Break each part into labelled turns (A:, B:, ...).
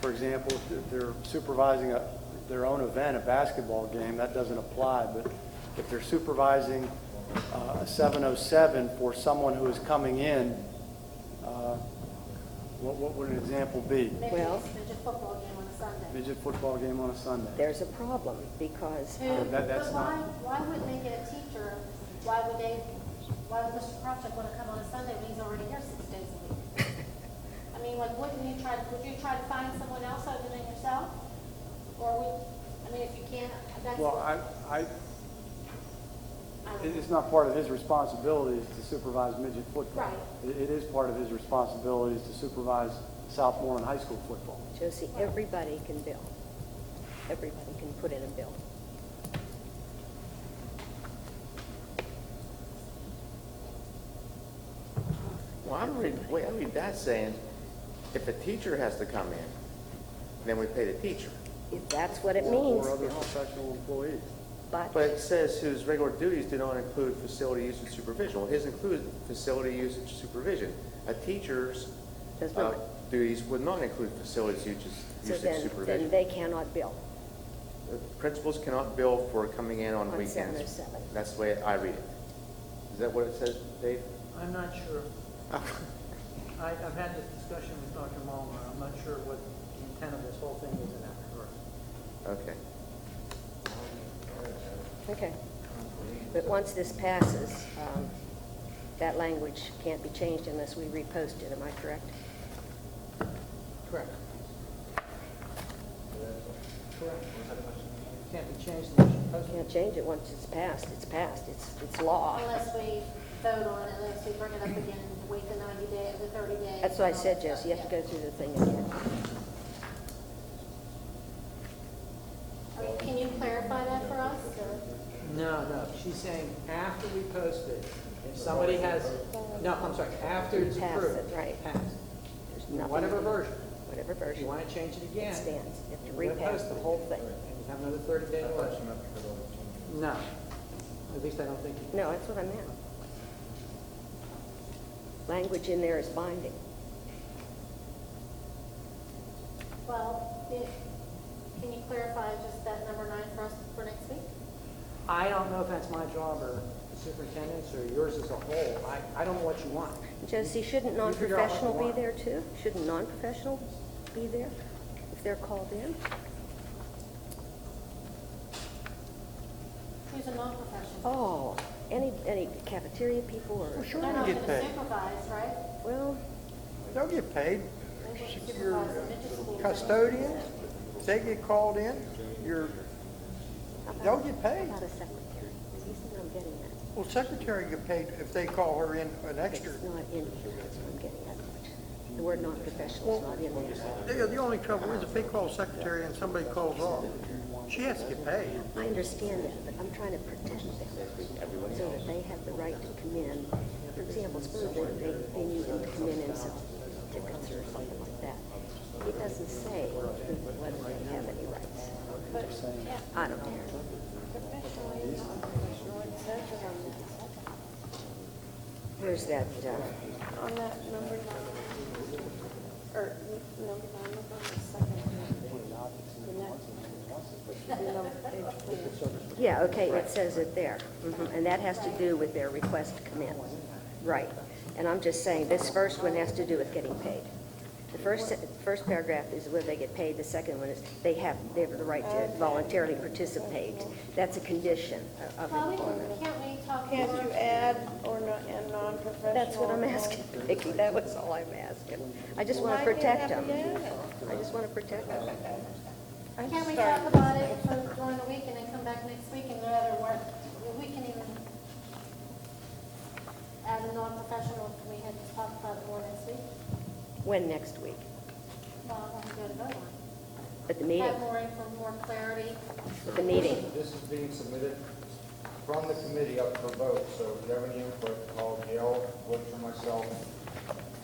A: for example, if they're supervising a, their own event, a basketball game, that doesn't apply, but if they're supervising uh, a 707 for someone who is coming in, uh, what, what would an example be?
B: Maybe
C: Well-
B: it's midget football game on a Sunday.
A: Midget football game on a Sunday.
C: There's a problem because,
B: Who-
A: uh, That- that's
B: But why, why would make it a teacher? Why would they, why would Mr. Kropchak want to come on a Sunday when he's already here six days a week? I mean, like, wouldn't you try, would you try to find someone else other than yourself? Or would, I mean, if you can't, that's.
A: Well, I, I,
B: I don't
A: it-
B: know.
A: it's not part of his responsibilities to supervise midget football.
B: Right.
A: It, it is part of his responsibilities to supervise sophomore and high school football.
C: Josie, everybody can bill. Everybody can put in a bill.
D: Well, I read, wait, I read that saying, if a teacher has to come in, then we pay the teacher.
C: If that's what it
A: or-
C: means,
A: Or other professional employees.
C: but,
D: But it says whose regular duties do not include facility use and supervision. Well, his includes facility use and supervision. A teacher's
C: Does
D: uh,
C: not.
D: duties would not include facilities use
C: so
D: use and
C: then, then
D: supervision.
C: they cannot bill.
D: The Principals cannot bill for coming in on
C: On
D: weekends.
C: 707.
D: That's the way I read it. Is that what it says, Dave?
E: I'm not sure. I, I've had this discussion with Dr. Mulner, I'm not sure what the intent of this whole thing is in that regard.
D: Okay.
C: Okay. But once this passes, um, that language can't be changed unless we repost it, am I correct?
E: Correct. Correct. Can't be changed unless you post
C: Can't change it once it's passed, it's passed, it's, it's law.
B: Unless we vote on it, unless we bring it up again, wait the ninety day, the thirty days.
C: That's what I
B: and all
C: said,
B: that stuff,
C: Josie, you have to
B: yeah.
C: go through the thing again.
B: I mean, Can you clarify that for us, or?
E: No, no, she's saying after we post it, if somebody has, no, I'm sorry, after it's
C: Pass it,
E: approved.
C: right.
E: Passed.
C: There's nothing-
E: Whatever version.
C: Whatever
E: If you
C: version.
E: want to change it again.
C: It stands. You have to
E: you're gonna
C: repass
E: post
C: the
E: it.
C: whole thing.
E: And you have another thirty day notice. No, at least I don't think you.
C: No, that's what I meant. Language in there is binding.
B: Well, it- can you clarify just that number nine for us for next week?
E: I don't know if that's my job or the superintendent's or yours as a whole. I, I don't know what you want.
C: Josie, shouldn't
E: You figure out what you
C: non-professional be
E: want.
C: there too? Shouldn't non-professional be there if they're called in?
B: Who's a non-professional?
C: Oh, any, any cafeteria people or,
B: They're not going to supervise, right?
C: well,
F: They'll get paid.
B: They wouldn't
F: Your
B: supervise the middle school.
F: Custodians, if they get called in, you're,
C: how about-
F: They'll get
C: how
F: paid.
C: about a secretary? You see what I'm getting at?
F: well, secretary get paid if they call her in an extra.
C: It's not in here, that's what I'm getting at. The word non-professional's not in there.
F: The, the only trouble is if they call secretary and somebody calls off, she has to get paid.
C: I understand that, but I'm trying to protect them so that they have the right to come in. For example, suppose they, they, they need them to come in and sell tickets or something like that. It doesn't say whether they have any rights. I don't care. Where's that, uh,
B: On that number nine, or n- number nine, look on the second one. The next- the number- page twenty.
C: yeah, okay, it says it there. Mhm, And that has to do with their request to come in. Right. And I'm just saying, this first one has to do with getting paid. The first, se- first paragraph is whether they get paid, the second one is they have, they have the right to voluntarily participate. That's a condition of
B: Well, we
C: employment.
B: can, can't we talk?
G: Can't
B: more-
G: you add or not, and non-professional?
C: That's what I'm asking, Vicki, that was all I'm asking. I just want to protect them. I just want to protect them.
B: Can we talk about it for during the week and then come back next week and go out and work? We can even, as a non-professional, we had to talk about it more next week.
C: When next week?
B: Well, I'm going to vote on
C: At the
B: it.
C: meeting?
B: Have more info, more clarity.
C: At the meeting?
H: This is being submitted from the committee up for vote, so if you have any input, call Gail, Butch, or myself,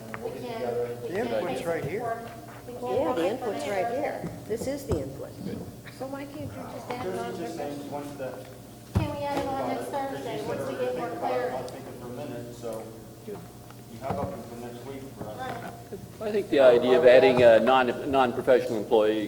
H: and we'll
B: We
H: get
B: can.
H: together.
B: we
F: The
B: can
F: input's
B: basic
F: right here.
B: report. We can
C: Yeah,
B: work
C: the
B: on
C: input's
B: it.
C: right here. This is the input.
G: So why can't you just add
H: This is just
G: non-professional?
H: saying, once the.
B: Can we add it on next Thursday, once we get more
H: Think about it,
B: clarity?
H: I'll think it for a minute, so you How about for next week for us?
B: Right.
I: I think the idea of adding a non- non-professional employee